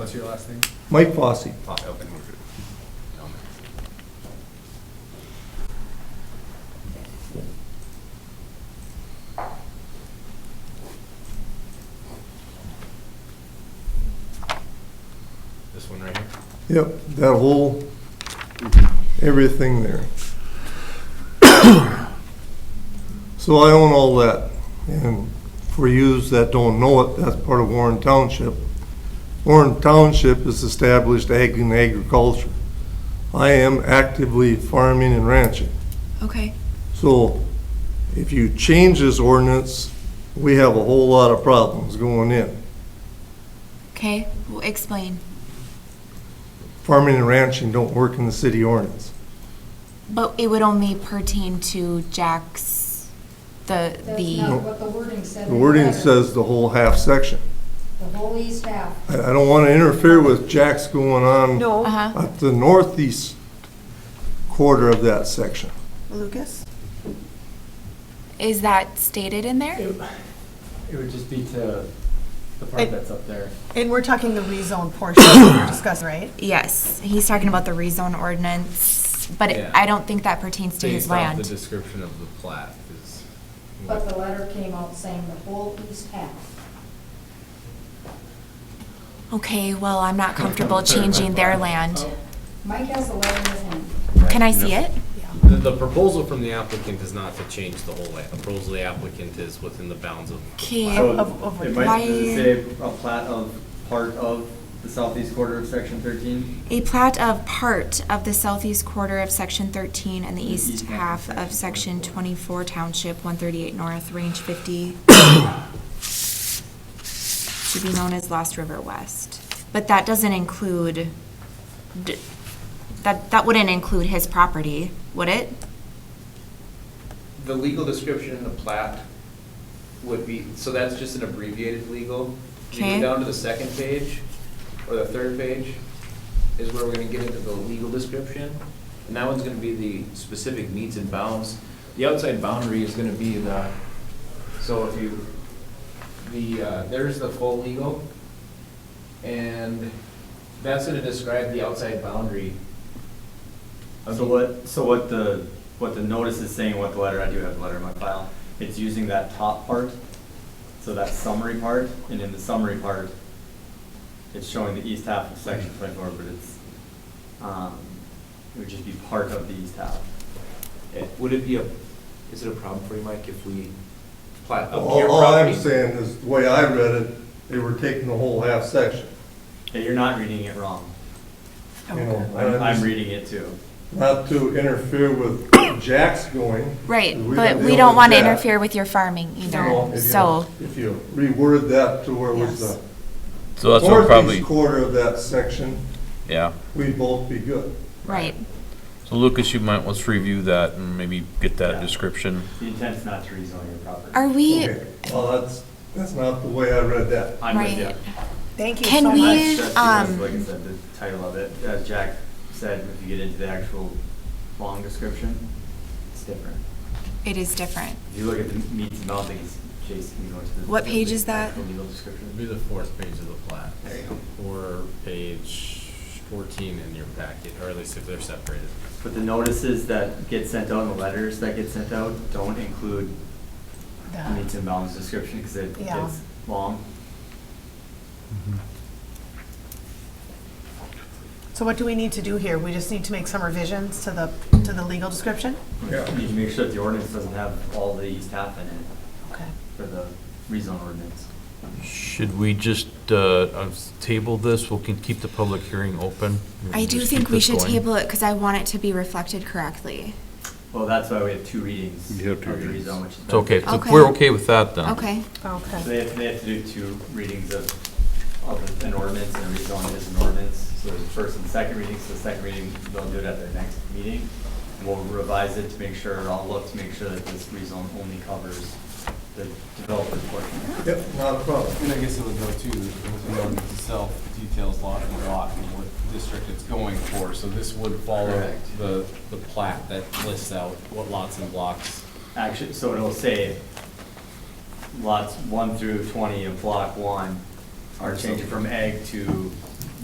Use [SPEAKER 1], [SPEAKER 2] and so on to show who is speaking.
[SPEAKER 1] What's your last name?
[SPEAKER 2] Mike Fossey.
[SPEAKER 1] This one right here?
[SPEAKER 2] Yep, that whole, everything there. So I own all that, and for yous that don't know it, that's part of Warren Township. Warren Township is established ag and agriculture. I am actively farming and ranching.
[SPEAKER 3] Okay,
[SPEAKER 2] So if you change this ordinance, we have a whole lot of problems going in.
[SPEAKER 3] okay, well, explain.
[SPEAKER 2] Farming and ranching don't work in the city ordinance.
[SPEAKER 3] But it would only pertain to Jack's, the,
[SPEAKER 4] That's
[SPEAKER 3] the,
[SPEAKER 4] not what the wording said.
[SPEAKER 2] The
[SPEAKER 4] in
[SPEAKER 2] wording
[SPEAKER 4] letter.
[SPEAKER 2] says the whole half section.
[SPEAKER 4] The whole east half.
[SPEAKER 2] I, I don't want to interfere with Jack's going on
[SPEAKER 5] No,
[SPEAKER 3] uh-huh,
[SPEAKER 2] at the northeast quarter of that section.
[SPEAKER 5] Lucas?
[SPEAKER 3] is that stated in there?
[SPEAKER 6] It it would just be to the part
[SPEAKER 5] It-
[SPEAKER 6] that's up there.
[SPEAKER 5] And we're talking the rezone portion we're discussing, right?
[SPEAKER 3] Yes, he's talking about the rezone ordinance, but it-
[SPEAKER 1] Yeah.
[SPEAKER 3] I don't think that pertains to his
[SPEAKER 1] Based off the
[SPEAKER 3] land.
[SPEAKER 1] description of the plat is.
[SPEAKER 4] But the letter came out saying the whole east half.
[SPEAKER 3] Okay, well, I'm not comfortable changing their land.
[SPEAKER 4] Mike has the letter in his hand.
[SPEAKER 1] Oh,
[SPEAKER 3] Can I see it?
[SPEAKER 7] The, the proposal from the applicant is not to change the whole land. The proposal of the applicant is within the bounds of. the
[SPEAKER 3] Okay.
[SPEAKER 7] plat.
[SPEAKER 5] Of- of-
[SPEAKER 6] It
[SPEAKER 3] why-
[SPEAKER 6] might say a plat of part of the southeast quarter of section thirteen.
[SPEAKER 3] A plat of part of the southeast quarter of section thirteen and the east half of section twenty-four township one thirty-eight north, range fifty. Should be known as Lost River West, but that doesn't include, d- that, that wouldn't include his property, would it?
[SPEAKER 8] The legal description in the plat would be, so that's just an abbreviated legal. If You
[SPEAKER 3] Okay.
[SPEAKER 8] go down to the second page, or the third page, is where we're gonna get into the legal description. And that one's gonna be the specific needs and bounds. The outside boundary is gonna be the, so if you, the, uh, there's the full legal. And that's gonna describe the outside boundary. of
[SPEAKER 6] So
[SPEAKER 8] the-
[SPEAKER 6] what, so what the, what the notice is saying, what the letter, I do have the letter in my file, it's using that top part, so that summary part, and in the summary part, it's showing the east half of section twenty-four, but it's, um, it would just be part of the east half.
[SPEAKER 8] It- Would it be a, is it a problem for you, Mike, if we plat up
[SPEAKER 2] All,
[SPEAKER 8] your
[SPEAKER 2] all I'm
[SPEAKER 8] property?
[SPEAKER 2] saying is, the way I read it, they were taking the whole half section.
[SPEAKER 6] Yeah, you're not reading it wrong.
[SPEAKER 2] You know,
[SPEAKER 6] I'm,
[SPEAKER 2] and
[SPEAKER 6] I'm
[SPEAKER 2] I'm-
[SPEAKER 6] reading it too.
[SPEAKER 2] Not to interfere with Jack's going.
[SPEAKER 3] Right,
[SPEAKER 2] We
[SPEAKER 3] but
[SPEAKER 2] don't
[SPEAKER 3] we
[SPEAKER 2] deal
[SPEAKER 3] don't
[SPEAKER 2] with
[SPEAKER 3] want to
[SPEAKER 2] that.
[SPEAKER 3] interfere with your farming
[SPEAKER 2] No,
[SPEAKER 3] either,
[SPEAKER 2] if you-
[SPEAKER 3] so,
[SPEAKER 2] If you reword that to where it was the
[SPEAKER 9] So that's what
[SPEAKER 2] northeast
[SPEAKER 9] probably,
[SPEAKER 2] quarter of that section,
[SPEAKER 9] yeah.
[SPEAKER 2] we'd both be good.
[SPEAKER 3] right.
[SPEAKER 9] So Lucas, you might, let's review that and maybe get
[SPEAKER 6] Yeah.
[SPEAKER 9] that description.
[SPEAKER 6] The intent's not to rezone your property.
[SPEAKER 3] Are we,
[SPEAKER 2] Okay. Well, that's, that's not the way I read that.
[SPEAKER 6] I'm with you.
[SPEAKER 3] right,
[SPEAKER 5] Thank you
[SPEAKER 3] Can
[SPEAKER 5] so
[SPEAKER 3] we-
[SPEAKER 5] much.
[SPEAKER 6] That's just because,
[SPEAKER 3] um,
[SPEAKER 6] Like I said, the title of it, as Jack said, if you get into the actual long description, it's different.
[SPEAKER 3] it is different.
[SPEAKER 6] If you look at the meats and bounds, I think it's Jason, can you go into the.
[SPEAKER 3] What page is that?
[SPEAKER 6] actual legal
[SPEAKER 7] It'd
[SPEAKER 6] description.
[SPEAKER 7] be the fourth page of the plat.
[SPEAKER 6] There you go.
[SPEAKER 7] Or page fourteen in your packet, or at least if they're separated.
[SPEAKER 6] But the notices that get sent out and the letters that get sent out don't include the
[SPEAKER 5] The-
[SPEAKER 6] meats and bounds description because it
[SPEAKER 5] Yeah.
[SPEAKER 6] gets long.
[SPEAKER 5] So what do we need to do here? We just need to make some revisions to the, to the legal description?
[SPEAKER 6] You need to make sure that the ordinance doesn't have all the east half in it
[SPEAKER 5] Okay.
[SPEAKER 6] for the rezone ordinance.
[SPEAKER 9] Should we just uh, uh, table this? We can keep the public hearing open. We
[SPEAKER 3] I
[SPEAKER 9] can
[SPEAKER 3] do
[SPEAKER 9] just
[SPEAKER 3] think
[SPEAKER 9] keep
[SPEAKER 3] we
[SPEAKER 9] this
[SPEAKER 3] should
[SPEAKER 9] going.
[SPEAKER 3] table it because I want it to be reflected correctly.
[SPEAKER 6] Well, that's why we have two readings.
[SPEAKER 9] You have two
[SPEAKER 6] of the
[SPEAKER 9] readings.
[SPEAKER 6] rezone, which is
[SPEAKER 9] It's okay,
[SPEAKER 6] beneficial.
[SPEAKER 9] So
[SPEAKER 3] Okay.
[SPEAKER 9] we're okay with that then.
[SPEAKER 3] Okay,
[SPEAKER 6] So
[SPEAKER 5] Okay.
[SPEAKER 6] they have, they have to do two readings of, of an ordinance, and a rezone is an ordinance. So there's a first and second reading, so the second reading, they'll do it at their next meeting. And we'll revise it to make sure, or I'll look to make sure that this rezone only covers the developer's portion.
[SPEAKER 2] Yep, not a problem.
[SPEAKER 10] And I guess it'll go to, the ordinance itself details lot and lot and what district it's going for, so this would follow
[SPEAKER 6] Correct.
[SPEAKER 10] the, the plat that lists out what lots and blocks.
[SPEAKER 6] Actually, so it'll say lots one through twenty of block one are changing from egg to